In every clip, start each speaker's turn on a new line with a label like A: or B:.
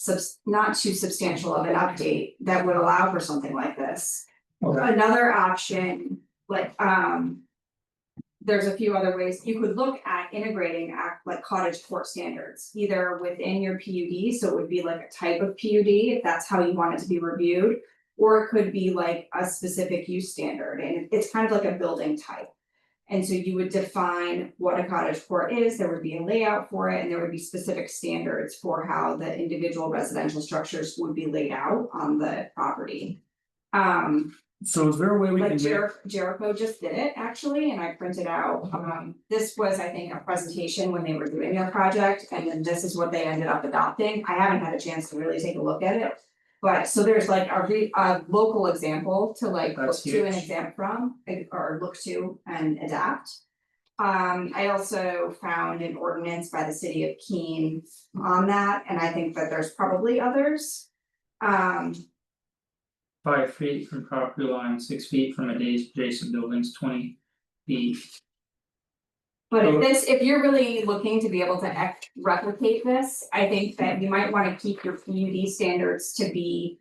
A: subs- not too substantial of an update that would allow for something like this.
B: Okay,
A: Another option, like, um. There's a few other ways, you could look at integrating act like cottage court standards, either within your P U D, so it would be like a type of P U D, if that's how you want it to be reviewed. Or it could be like a specific use standard, and it's kind of like a building type. And so you would define what a cottage court is, there would be a layout for it, and there would be specific standards for how the individual residential structures would be laid out on the property. Um.
B: so is there a way we can
A: Like
B: make?
A: Jer- Jericho just did it actually, and I printed out, um, this was, I think, a presentation when they were doing their project, and then this is what they ended up adopting. I haven't had a chance to really take a look at it. But so there's like a re- a local example to like look
B: That's
A: to and
B: huge.
A: exam from, like, or look to and adapt. Um, I also found an ordinance by the city of Keene on that, and I think that there's probably others. Um,
C: Five feet from property line, six feet from adja- adjacent buildings, twenty feet.
A: But
B: So-
A: if this, if you're really looking to be able to ec- replicate this, I think that you might wanna keep your PUD standards to be.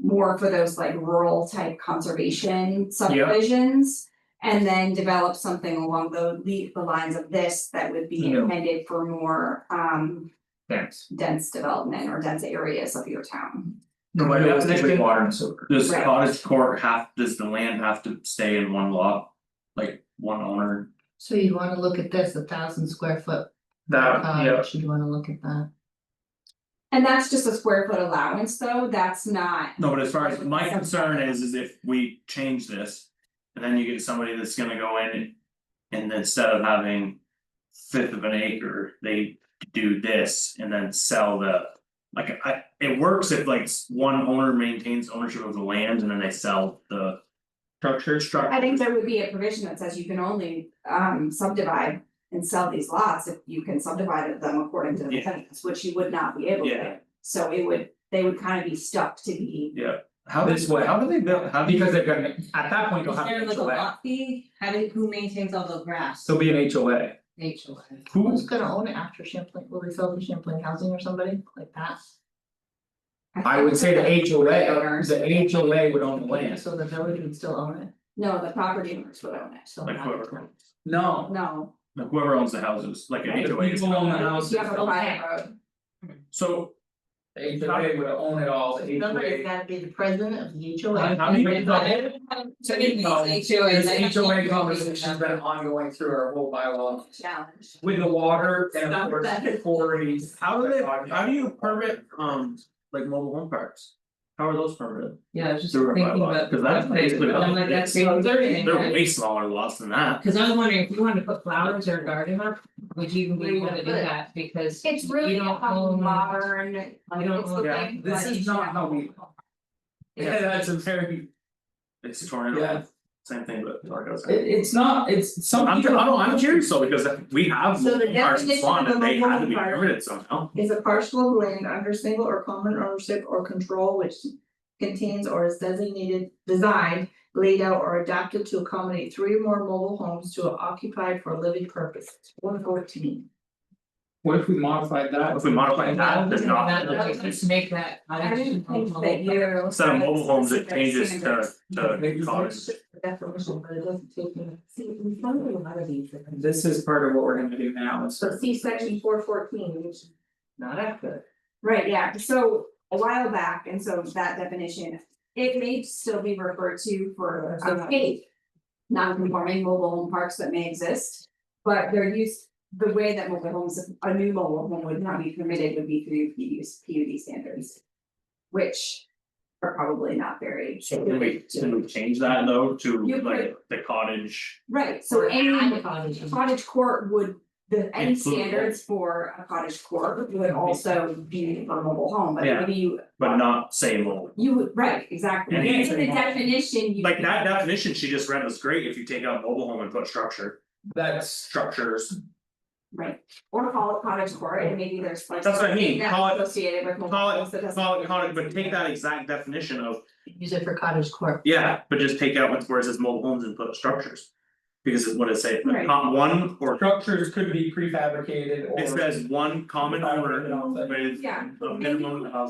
A: More for those like rural type conservation subdivisions. And then develop something along the le- the lines of this that would be
C: Yeah.
A: intended for more um
C: Thanks.
A: dense development or dense areas of your town.
B: No, by
C: Realistically,
B: definition,
C: water and sewer.
D: Does
A: Right.
D: cottage court have, does the land have to stay in one lot? Like one owner?
E: So you wanna look at this, a thousand square foot
C: That, yeah,
E: cottage, you wanna look at that,
A: And that's just a square foot allowance, though, that's not,
D: No, but as far as my concern is, is if we change this. And then you get somebody that's gonna go in and instead of having. Fifth of an acre, they do this and then sell the. Like I, it works if like s- one owner maintains ownership of the land and then they sell the
C: structure, structure.
A: I think there would be a provision that says you can only um subdivide and sell these lots if you can subdivide them according to the
D: Yeah.
A: plans, which you would not be able to.
D: Yeah.
A: So it would, they would kind of be stuck to the.
D: How
C: This
D: does,
C: way.
D: how do they build, how do you?
C: Because they're gonna, at that point, you'll have an HOA,
F: fee, how do, who maintains all the grass?
C: there'll be an HOA,
F: HOA.
E: who's gonna own it after Champlain, will they sell to Champlain Housing or somebody like that?
C: I would say the HOA,
A: Owners.
C: the HOA would own the land.
E: So the village would still own it,
A: No, the property owners would own it,
E: so.
D: Like
E: not-
D: whoever,
C: No.
A: no,
D: like whoever owns the houses, like an
C: The
D: HOA. is
C: people own the
D: not-
C: houses,
A: you have a
C: the
A: private road,
D: So
C: HOA would own it all, the
E: Somebody's
C: HOA.
E: gotta be the president of the
C: How-
E: HOA.
C: how do you make the-
F: So these HOAs.
C: This HOA conversation's been ongoing through our whole bylaw
A: challenge.
C: with the water and of
E: Stop
C: course
E: that.
C: quarries.
D: How do they, how do you permit, um, like mobile home parks? How are those permitted?
F: Yeah, I was just
D: Through our
F: thinking
D: bylaw,
F: about.
D: 'cause that's basically
F: I'm like,
D: what it
F: that's
D: is.
F: so dirty,
D: They're
F: right?
D: way smaller lots than that.
F: Cause I was wondering, if you wanted to put flowers or a garden up, would you
E: Where
F: be
E: you
F: able
E: gonna
F: to do
E: put it?
F: that, because.
A: It's
F: you
A: really a
F: don't own-
A: modern,
F: You don't
A: it's
F: own-
A: the
C: yeah,
A: thing,
C: this
A: but
C: is
A: it's
C: not how we- Yeah, that's a very,
D: It's a tornado.
C: Yeah.
D: Same thing, but tornadoes.
C: it it's not, it's some
D: I'm,
C: people-
D: I don't, I'm curious though, because we have
A: So the
D: mobile home parks in
A: definition of
D: Swan
A: a
D: and they
A: mobile
D: had to be
A: home park-
D: permitted somehow.
E: Is a parcel of land under single or common ownership or control which contains or is designated, designed, laid out or adapted to accommodate three or more mobile homes to occupy for living purposes, one fourteen.
C: What if we modified that?
D: If we modify that, there's not.
F: That, that, just make that.
A: I didn't think that
F: you.
A: you.
D: Instead of mobile homes, it changes to
C: Maybe
D: to
C: we
D: cottage.
E: Definition, but it doesn't take me. See, we found a lot of these.
C: This is part of what we're gonna do now, it's.
E: So see section four fourteen, which is not accurate.
A: Right, yeah, so a while back, and so that definition, it may still be referred to for
E: So-
A: um, eight Non-conforming mobile home parks that may exist, but they're used, the way that mobile homes, a new mobile home would not be permitted would be through PUDs, PUD standards. Which are probably not very.
D: So can we, can we change that though to
A: You
D: like the cottage?
A: Right, so any
E: cottages.
A: cottage court would, the, any
D: Include both.
A: standards for a cottage court would also be for mobile home, but
D: Yeah.
A: maybe you
D: But not say mobile.
A: You would, right, exactly,
D: And
A: in the
C: anything else.
A: definition, you.
D: Like that definition she just read was great if you take out mobile home and put structure,
C: That's,
D: structures.
A: Right, or call it cottage court, and maybe there's like.
D: That's what I mean,
A: that's
D: call it-
A: Associated with. mobile
D: Call
A: homes that
D: it,
A: doesn't-
D: call it, call it, but take that exact definition of,
E: Use it for cottage court.
D: yeah, but just take out what's where it says mobile homes and put structures. Because it's what it say,
A: Right.
D: not one or,
C: structures could be prefabricated or.
D: it says one common owner, but it's
A: Yeah.
D: a minimum of